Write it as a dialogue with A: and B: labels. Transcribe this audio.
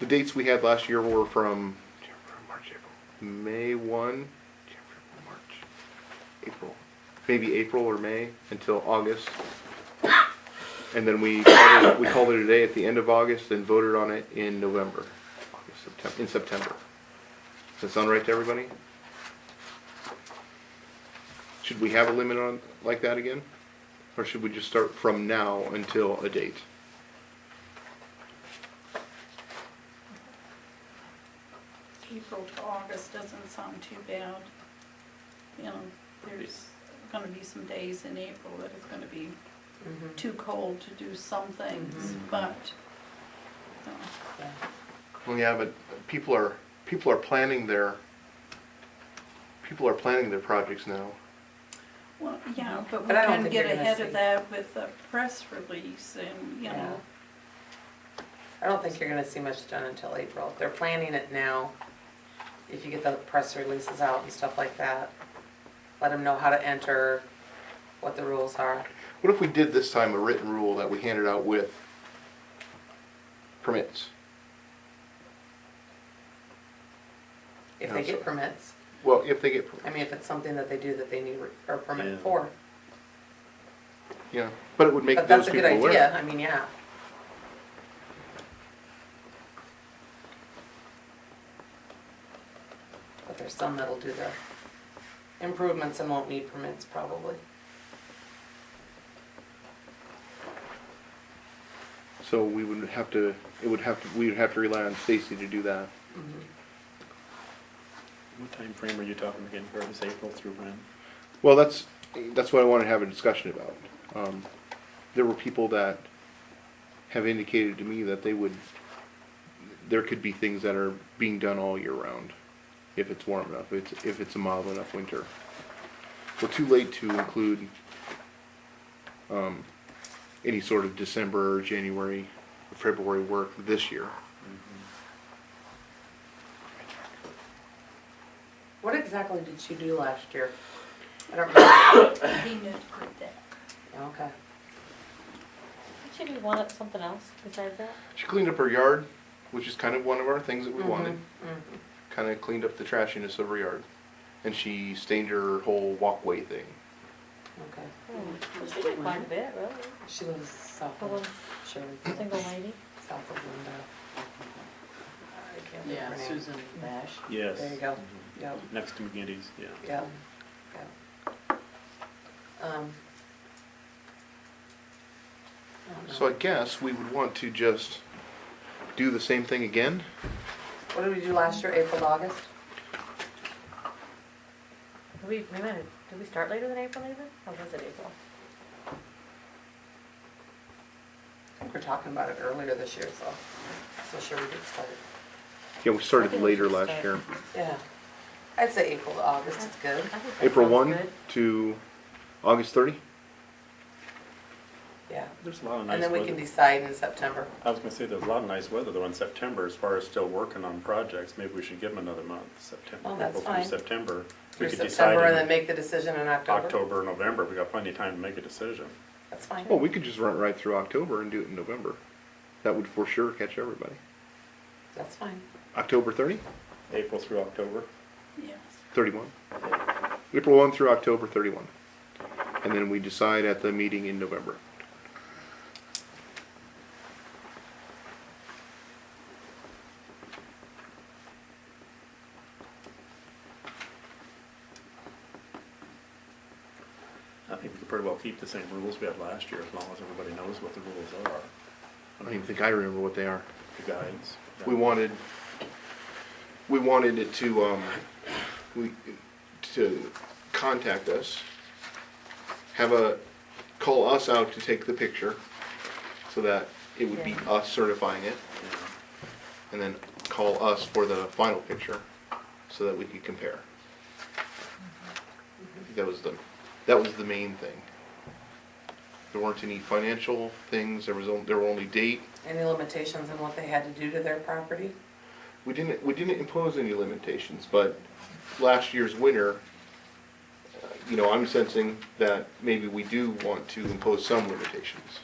A: The dates we had last year were from May 1, March, April, maybe April or May until August. And then we called it, we called it a day at the end of August and voted on it in November, August, September, in September. Does that sound right to everybody? Should we have a limit on, like that again? Or should we just start from now until a date?
B: April to August doesn't sound too bad. You know, there's gonna be some days in April that it's gonna be
C: Mm-hmm.
B: too cold to do some things, but, you know,
A: Well, yeah, but people are, people are planning their, people are planning their projects now.
B: well, yeah, but we
C: But I don't
B: can
C: think
B: get
C: you're gonna
B: ahead of
C: see-
B: that with a press release and, you know,
C: I don't think you're gonna see much done until April. They're planning it now. If you get the press releases out and stuff like that, let them know how to enter, what the rules are.
A: What if we did this time a written rule that we handed out with permits?
C: If they get permits,
A: Well, if they get,
C: I mean, if it's something that they do that they need a permit
D: Yeah.
C: for.
A: yeah, but it would make
C: But
A: those
C: that's a
A: people
C: good
A: aware.
C: idea, I mean, yeah. But there's some that'll do their improvements and won't need permits probably.
A: So we would have to, it would have to, we would have to rely on Stacy to do that.
D: What time frame are you talking again, for this April through when?
A: Well, that's, that's what I wanted to have a discussion about. Um, There were people that have indicated to me that they would, there could be things that are being done all year round, if it's warm enough, it's, if it's a mild enough winter. We're too late to include um, any sort of December, January, February work this year.
C: What exactly did she do last year? I don't remember.
B: he knew to do that.
C: Okay.
E: Did you do one at something else besides that?
A: She cleaned up her yard, which is kind of one of our things that we wanted.
C: mhm.
A: Kind of cleaned up the trashiness of her yard, and she stained her whole walkway thing.
C: Okay.
E: Hmm. She did quite a bit, really.
C: She lives south
E: The one
C: of, she lives
E: single lady.
C: south of Linda. I can't think of
F: Yeah,
C: her name.
F: Susan Bash.
D: Yes.
C: There you go.
D: Mhm.
C: Yep,
D: Next to McGinty's, yeah.
C: yep, yep. Um, I don't
A: So I
C: know.
A: guess we would want to just do the same thing again.
C: What did we do last year, April, August?
E: Did we, we might, did we start later than April even? Or was it April?
C: I think we're talking about it earlier this year, so, so sure we get started.
A: Yeah, we started
E: I think we
A: later
E: should
A: last
E: start.
A: year.
C: Yeah. I'd say April to August is good.
E: I think that
A: April
E: sounds
A: 1
E: good.
A: to August 30.
C: Yeah.
D: There's a lot of nice
C: And then
D: weather.
C: we can decide in September.
D: I was gonna say, there's a lot of nice weather though in September, as far as still working on projects, maybe we should give them another month, September.
C: Oh, that's
D: April
C: fine.
D: Through September. We
C: Through
D: could decide
C: September and then
D: in
C: make the decision in October.
D: October, November, we got plenty of time to make a decision.
C: That's fine.
A: Well, we could just run it right through October and do it in November. That would for sure catch everybody.
C: That's fine.
A: October 30,
D: April through October.
B: Yes,
A: 31. April 1 through October 31. And then we decide at the meeting in November.
D: I think we could pretty well keep the same rules we had last year, as long as everybody knows what the rules are.
A: I don't even think I remember what they are.
D: The guides.
A: We wanted, we wanted it to, um, we, to contact us, have a, call us out to take the picture, so that it would be
E: Yeah.
A: us certifying it,
D: Yeah.
A: and then call us for the final picture, so that we could compare. I think That was the, that was the main thing. There weren't any financial things, there was, on- there were only date,
C: Any limitations on what they had to do to their property?
A: We didn't, we didn't impose any limitations, but last year's winter, uh, you know, I'm sensing that maybe we do want to impose some limitations.